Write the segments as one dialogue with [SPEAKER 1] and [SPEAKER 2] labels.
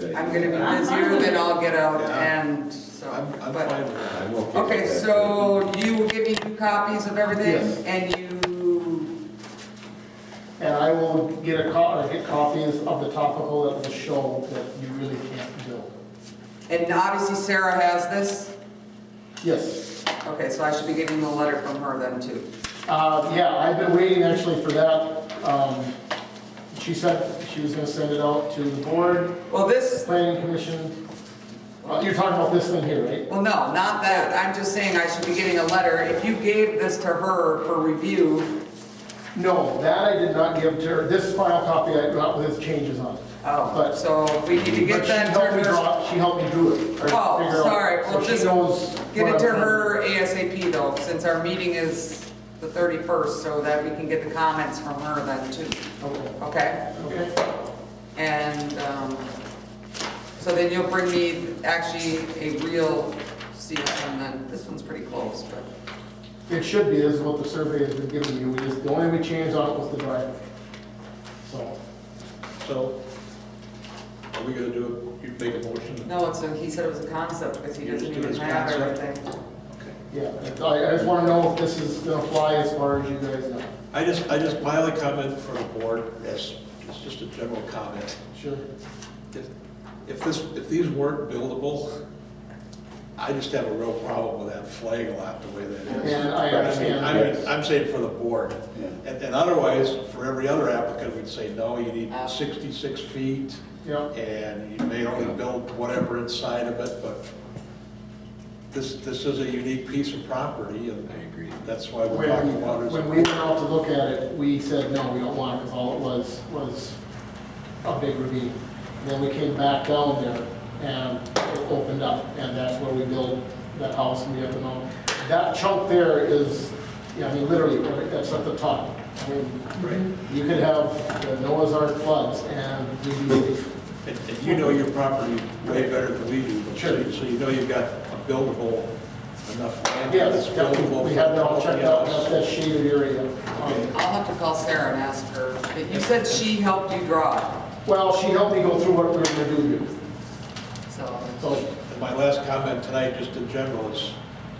[SPEAKER 1] Good
[SPEAKER 2] I'm
[SPEAKER 1] idea.
[SPEAKER 2] gonna be busier, then I'll get out and so,
[SPEAKER 3] I'm, I'm fine
[SPEAKER 2] but,
[SPEAKER 3] with that.
[SPEAKER 1] I'm okay.
[SPEAKER 2] okay,
[SPEAKER 1] with that.
[SPEAKER 2] so you will give me two copies of
[SPEAKER 4] Yes.
[SPEAKER 2] everything? And you,
[SPEAKER 4] And I will get a co, or get copies of the topical that will show that you really can't build.
[SPEAKER 2] and obviously Sarah has this?
[SPEAKER 4] Yes,
[SPEAKER 2] Okay, so I should be getting a letter from her then too.
[SPEAKER 4] uh, yeah, I've been waiting actually for that. Um, she said she was gonna send it out to the board,
[SPEAKER 2] Well, this,
[SPEAKER 4] planning commission. Uh, You're talking about this thing here, right?
[SPEAKER 2] well, no, not that. I'm just saying I should be getting a letter. If you gave this to her for review,
[SPEAKER 4] No, that I did not give to her. This final copy I got with his changes on it.
[SPEAKER 2] oh,
[SPEAKER 4] But-
[SPEAKER 2] so we need to
[SPEAKER 4] But
[SPEAKER 2] get
[SPEAKER 4] she
[SPEAKER 2] that to
[SPEAKER 4] helped me
[SPEAKER 2] her.
[SPEAKER 4] draw- She helped me do it. or
[SPEAKER 2] Oh,
[SPEAKER 4] figure out.
[SPEAKER 2] sorry.
[SPEAKER 4] So
[SPEAKER 2] Well,
[SPEAKER 4] she
[SPEAKER 2] just
[SPEAKER 4] knows
[SPEAKER 2] Get
[SPEAKER 4] what
[SPEAKER 2] it to
[SPEAKER 4] I'm-
[SPEAKER 2] her ASAP though, since our meeting is the 31st, so that we can get the comments from her then too,
[SPEAKER 4] Okay,
[SPEAKER 2] okay?
[SPEAKER 4] okay.
[SPEAKER 2] And, um, so then you'll bring me actually a real seal, and then, this one's pretty close, but,
[SPEAKER 4] It should be, this is what the survey has been giving you, we just, the only we changed on it was the driveway. So,
[SPEAKER 3] So, are we gonna do, it? you make a motion?
[SPEAKER 2] no, it's a, he said it was a concept, because he
[SPEAKER 3] You just
[SPEAKER 2] doesn't
[SPEAKER 3] do
[SPEAKER 2] even
[SPEAKER 3] his
[SPEAKER 2] have
[SPEAKER 3] concept.
[SPEAKER 2] everything.
[SPEAKER 4] yeah, I, I just wanna know if this is gonna fly as far as you guys know.
[SPEAKER 3] I just, I just, my only comment for the board, yes, it's just a general comment.
[SPEAKER 4] Sure.
[SPEAKER 3] If if this, if these weren't buildable, I just have a real problem with that flag lot the way that is.
[SPEAKER 4] And I
[SPEAKER 3] I mean,
[SPEAKER 4] understand,
[SPEAKER 3] I mean, I'm saying for the board.
[SPEAKER 1] Yeah.
[SPEAKER 3] And and otherwise, for every other applicant, we'd say, no, you need 66 feet,
[SPEAKER 4] yeah,
[SPEAKER 3] and you may only build whatever inside of it, but this, this is a unique piece of property, and
[SPEAKER 1] I agree.
[SPEAKER 3] that's why we're
[SPEAKER 4] when,
[SPEAKER 3] talking about it.
[SPEAKER 4] when we went out to look at it, we said, no, we don't want it, cause all it was, was a big ravine. And Then we came back down there and it opened up, and that's where we built that house and we have the mountain. That chunk there is, yeah, I mean, literally, right, that's at the top. I mean,
[SPEAKER 3] Right.
[SPEAKER 4] You could have the Noah's Ark floods and we,
[SPEAKER 3] And and you know your property way better than we do, but so-
[SPEAKER 4] Sure.
[SPEAKER 3] so you know you've got a buildable, enough land that's
[SPEAKER 4] yes,
[SPEAKER 3] buildable.
[SPEAKER 4] we had
[SPEAKER 3] for
[SPEAKER 4] it all checked out, that's
[SPEAKER 3] everybody
[SPEAKER 4] that shaded area.
[SPEAKER 3] Okay.
[SPEAKER 4] Um,
[SPEAKER 2] I'll have to call Sarah and ask her, but you said she helped you draw
[SPEAKER 4] Well, she helped me go through what we were gonna do here,
[SPEAKER 2] it, so.
[SPEAKER 4] so,
[SPEAKER 3] else. And my last comment tonight, just in general, is,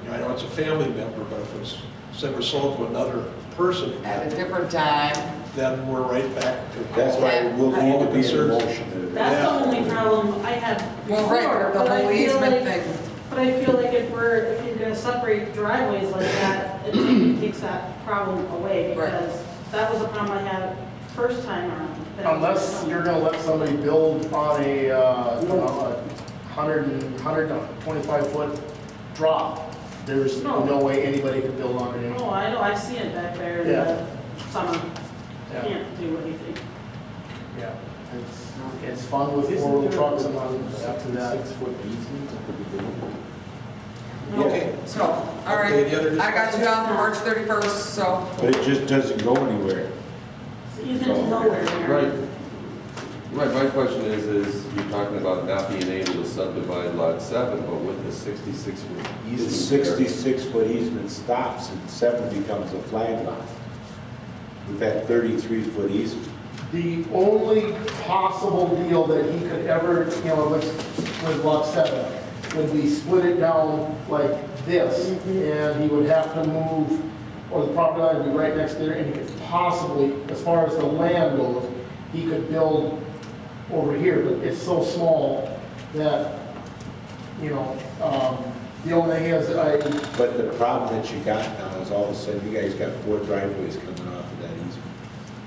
[SPEAKER 3] you know, I know it's a family member, but if it's, if it was sold to another person,
[SPEAKER 2] At a different time,
[SPEAKER 3] then we're right back to.
[SPEAKER 1] That's why we'll
[SPEAKER 3] All
[SPEAKER 1] need
[SPEAKER 3] the
[SPEAKER 1] to be in a
[SPEAKER 3] concerns.
[SPEAKER 1] motion.
[SPEAKER 5] That's the only problem I had
[SPEAKER 2] well, right,
[SPEAKER 5] before,
[SPEAKER 2] the
[SPEAKER 5] but I
[SPEAKER 2] whole
[SPEAKER 5] feel
[SPEAKER 2] easement
[SPEAKER 5] like-
[SPEAKER 2] thing.
[SPEAKER 5] But I feel like if we're, if you're gonna separate driveways like that, it takes that problem away,
[SPEAKER 2] Right.
[SPEAKER 5] because that was a problem I had first time around. that was-
[SPEAKER 4] Unless you're gonna let somebody build on a, uh, you know, a hundred and, hundred and twenty-five foot drop, there's
[SPEAKER 5] No.
[SPEAKER 4] no way anybody could build on it.
[SPEAKER 5] Oh, I know, I've seen it back there in
[SPEAKER 4] Yeah.
[SPEAKER 5] the summer,
[SPEAKER 4] Yeah.
[SPEAKER 5] can't do anything.
[SPEAKER 4] Yeah, it's, it's fun with four-wheel trucks and all after that.
[SPEAKER 1] foot easement at the beginning?
[SPEAKER 5] No.
[SPEAKER 3] Okay.
[SPEAKER 2] So, all right,
[SPEAKER 3] Okay, any other
[SPEAKER 2] I got you down for March 31st, so,
[SPEAKER 1] But it just doesn't go anywhere.
[SPEAKER 5] It's easement to nowhere,
[SPEAKER 6] Right.
[SPEAKER 5] Mary.
[SPEAKER 6] Right, my question is, is you're talking about not being able to subdivide lot seven, but with the sixty-six foot
[SPEAKER 1] The
[SPEAKER 6] easement. there,
[SPEAKER 1] sixty-six foot easement stops and seven becomes a flag lot. With that thirty-three foot easement.
[SPEAKER 4] The only possible deal that he could ever, you know, with, with lot seven, would be split it down like this, and he would have to move, or the property line would be right next there, and he could possibly, as far as the land goes, he could build over here, but it's so small that, you know, um, the only thing is, I,
[SPEAKER 1] But the problem that you got now is all of a sudden, you guys got four driveways coming off of that easement.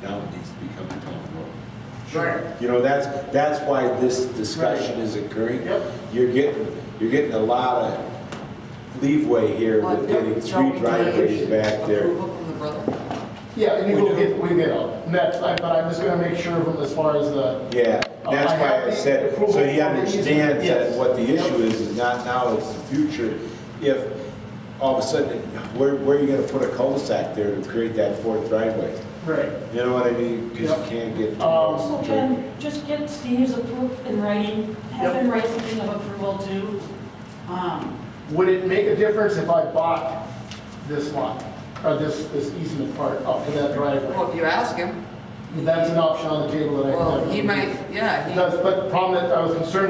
[SPEAKER 1] Now it needs to become a town road.
[SPEAKER 2] right,
[SPEAKER 1] You know, that's, that's why this discussion is occurring.
[SPEAKER 4] Yep.
[SPEAKER 1] You're getting, you're getting a lot of leeway here
[SPEAKER 2] Well,
[SPEAKER 1] with
[SPEAKER 2] don't-
[SPEAKER 1] getting
[SPEAKER 2] don't
[SPEAKER 1] three
[SPEAKER 2] we
[SPEAKER 1] driveways
[SPEAKER 2] need
[SPEAKER 1] back there.
[SPEAKER 2] approval from the brother.
[SPEAKER 4] yeah, and
[SPEAKER 3] We
[SPEAKER 4] you will
[SPEAKER 3] do.
[SPEAKER 4] get, we get, out. And that's, I- but I'm just gonna make sure of them as far as the,
[SPEAKER 1] Yeah,
[SPEAKER 4] Oh,
[SPEAKER 1] that's why I said, so he understands that what the issue is, is not now, it's the future. If all of a sudden, where, where are you gonna put a cul-de-sac there to create that fourth driveway?
[SPEAKER 4] Right.
[SPEAKER 1] You know what I mean? Because
[SPEAKER 4] Yep.
[SPEAKER 1] you can't get.
[SPEAKER 4] Um,
[SPEAKER 7] So Ken, just get Steve's approval in writing, have him write something of approval too. Um,
[SPEAKER 4] Would it make a difference if I bought this lot, or this, this easement part up to that driveway?
[SPEAKER 2] Well, if you ask him,
[SPEAKER 4] That's an option on the table that I.
[SPEAKER 2] Well, he might, yeah, he.
[SPEAKER 4] Because, but the problem that I was concerned